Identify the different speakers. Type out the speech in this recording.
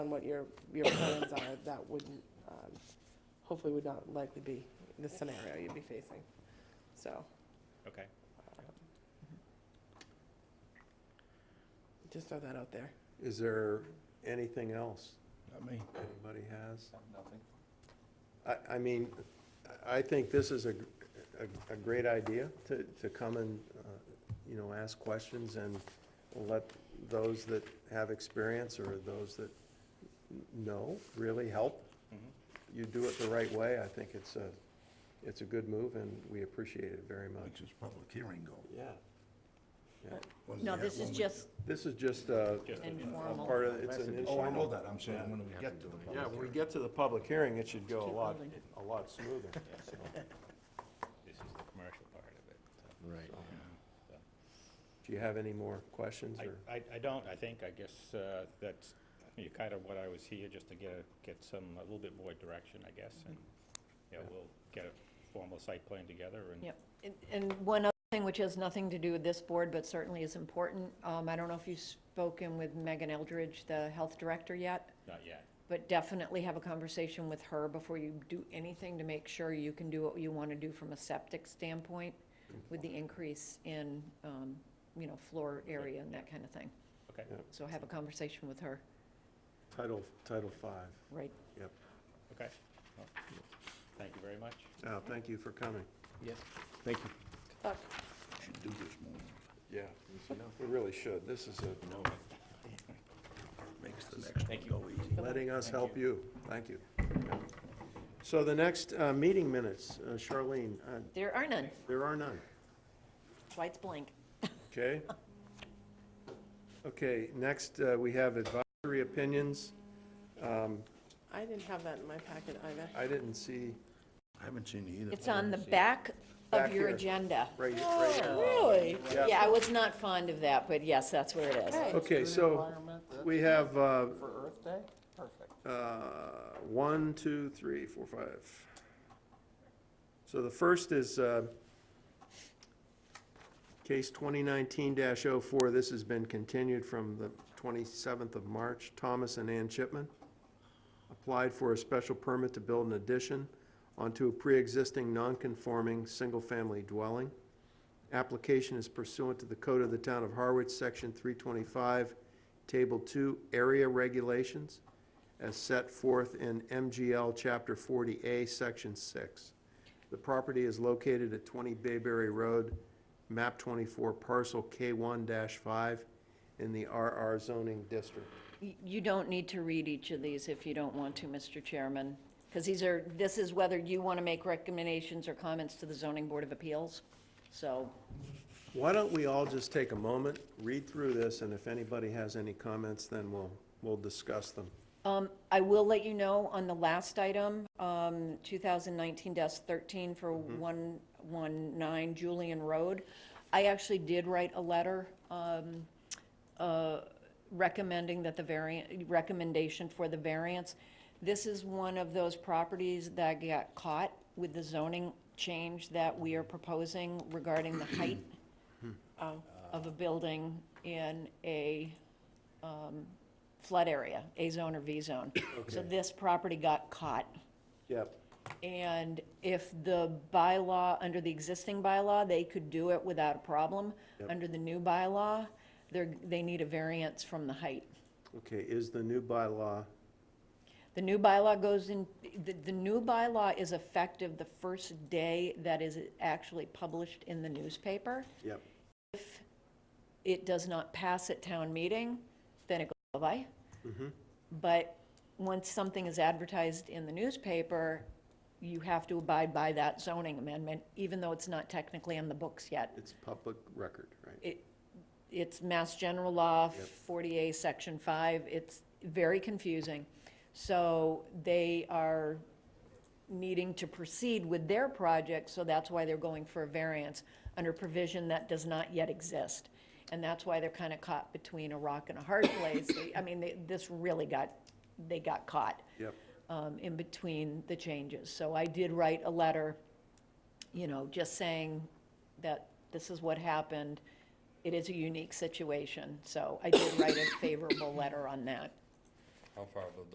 Speaker 1: on what your, your plans are, that would, um, hopefully would not likely be the scenario you'd be facing. So,
Speaker 2: Okay.
Speaker 1: just throw that out there.
Speaker 3: Is there anything else
Speaker 4: Not me.
Speaker 3: anybody has?
Speaker 4: Nothing.
Speaker 3: I, I mean, I think this is a, a, a great idea to, to come and, uh, you know, ask questions and let those that have experience or those that know really help.
Speaker 2: Mm-hmm.
Speaker 3: You do it the right way, I think it's a, it's a good move and we appreciate it very
Speaker 4: Which
Speaker 3: much.
Speaker 4: is public hearing go.
Speaker 3: Yeah. Yeah.
Speaker 4: What does
Speaker 5: No,
Speaker 4: that
Speaker 5: this is
Speaker 4: woman-
Speaker 5: just
Speaker 3: This is just uh, a,
Speaker 2: Just
Speaker 3: a
Speaker 5: informal.
Speaker 3: part of, it's an
Speaker 4: Oh, I know
Speaker 3: informal.
Speaker 4: that, I'm saying when we get to the public
Speaker 3: Yeah, when we
Speaker 4: hearing.
Speaker 3: get to the public hearing, it should go a
Speaker 5: Keep
Speaker 3: lot,
Speaker 5: moving.
Speaker 3: a lot smoother. so.
Speaker 2: This is the commercial part of it. so.
Speaker 6: Right.
Speaker 3: Do you have any more questions or?
Speaker 2: I, I, I don't, I think, I guess, uh, that's, you kind of what I was here, just to get, a- get some, a little bit more direction, I guess, and, yeah, we'll get a formal site plan together and.
Speaker 5: Yep. And- And one other thing, which has nothing to do with this board, but certainly is important, um, I don't know if you've spoken with Megan Eldridge, the health director yet,
Speaker 2: Not yet.
Speaker 5: but definitely have a conversation with her before you do anything to make sure you can do what you want to do from a septic standpoint with the increase in, um, you know, floor area and that kind of thing.
Speaker 2: Okay.
Speaker 3: Yeah.
Speaker 5: So have a conversation with her,
Speaker 3: Title, Title Five.
Speaker 5: right?
Speaker 3: yep.
Speaker 2: Okay. Well, Thank you very much.
Speaker 3: Uh, thank you for coming.
Speaker 6: Yes. Thank you.
Speaker 1: Look,
Speaker 4: Should do this more,
Speaker 3: Yeah. We really should. This is a,
Speaker 4: makes the next one go easy.
Speaker 3: letting us help you. Thank you. So the next, uh, meeting minutes, uh, Charlene, uh,
Speaker 5: There are none,
Speaker 3: there are none,
Speaker 5: White's blank.
Speaker 3: okay? Okay, next, uh, we have advisory opinions. Um,
Speaker 1: I didn't have that in my packet either.
Speaker 3: I didn't see,
Speaker 4: I haven't seen it either.
Speaker 5: It's on the back
Speaker 3: Back
Speaker 5: of your
Speaker 3: here.
Speaker 5: agenda.
Speaker 3: right, right here.
Speaker 5: Really?
Speaker 3: Yeah.
Speaker 5: Yeah, I was not fond of that, but yes, that's where it is.
Speaker 3: Okay, so we have, uh,
Speaker 7: For Earth Day? Perfect.
Speaker 3: Uh, one, two, three, four, five. So the first is uh, case 2019-04. This has been continued from the 27th of March. Thomas and Ann Chipman applied for a special permit to build an addition onto a pre-existing non-conforming single-family dwelling. Application is pursuant to the Code of the Town of Harwich, Section 325, Table 2, Area Regulations, as set forth in MGL Chapter 40A, Section 6. The property is located at 20 Bayberry Road, MAP 24, Parcel K1-5, in the RR zoning district.
Speaker 5: Y- You don't need to read each of these if you don't want to, Mr. Chairman, because these are, this is whether you want to make recommendations or comments to the zoning board of appeals. So,
Speaker 3: Why don't we all just take a moment, read through this, and if anybody has any comments, then we'll, we'll discuss them.
Speaker 5: um, I will let you know on the last item, um, 2019-13 for 119 Julian Road. I actually did write a letter, um, uh, recommending that the variant, recommendation for the variance. This is one of those properties that got caught with the zoning change that we are proposing regarding the height of a building in a um, flood area, A zone or V zone. So this property got caught.
Speaker 3: Yep.
Speaker 5: And if the bylaw, under the existing bylaw, they could do it without a problem. Under the new bylaw, they're, they need a variance from the height.
Speaker 3: Okay, is the new bylaw,
Speaker 5: The new bylaw goes in, the, the new bylaw is effective the first day that is actually published in the newspaper.
Speaker 3: yep,
Speaker 5: If it does not pass at town meeting, then it goes bye-bye. But once something is advertised in the newspaper, you have to abide by that zoning amendment, even though it's not technically on the books yet.
Speaker 3: it's public record, right?
Speaker 5: It, it's Mass General Law,
Speaker 3: Yep.
Speaker 5: 40A, Section 5, it's very confusing. So they are needing to proceed with their project, so that's why they're going for a variance under provision that does not yet exist. And that's why they're kind of caught between a rock and a hard place. They- I mean, they- this really got, they got caught
Speaker 3: Yep,
Speaker 5: um, in between the changes. So I did write a letter, you know, just saying that this is what happened. It is a unique situation, so I did write a favorable letter on that.
Speaker 6: How far above the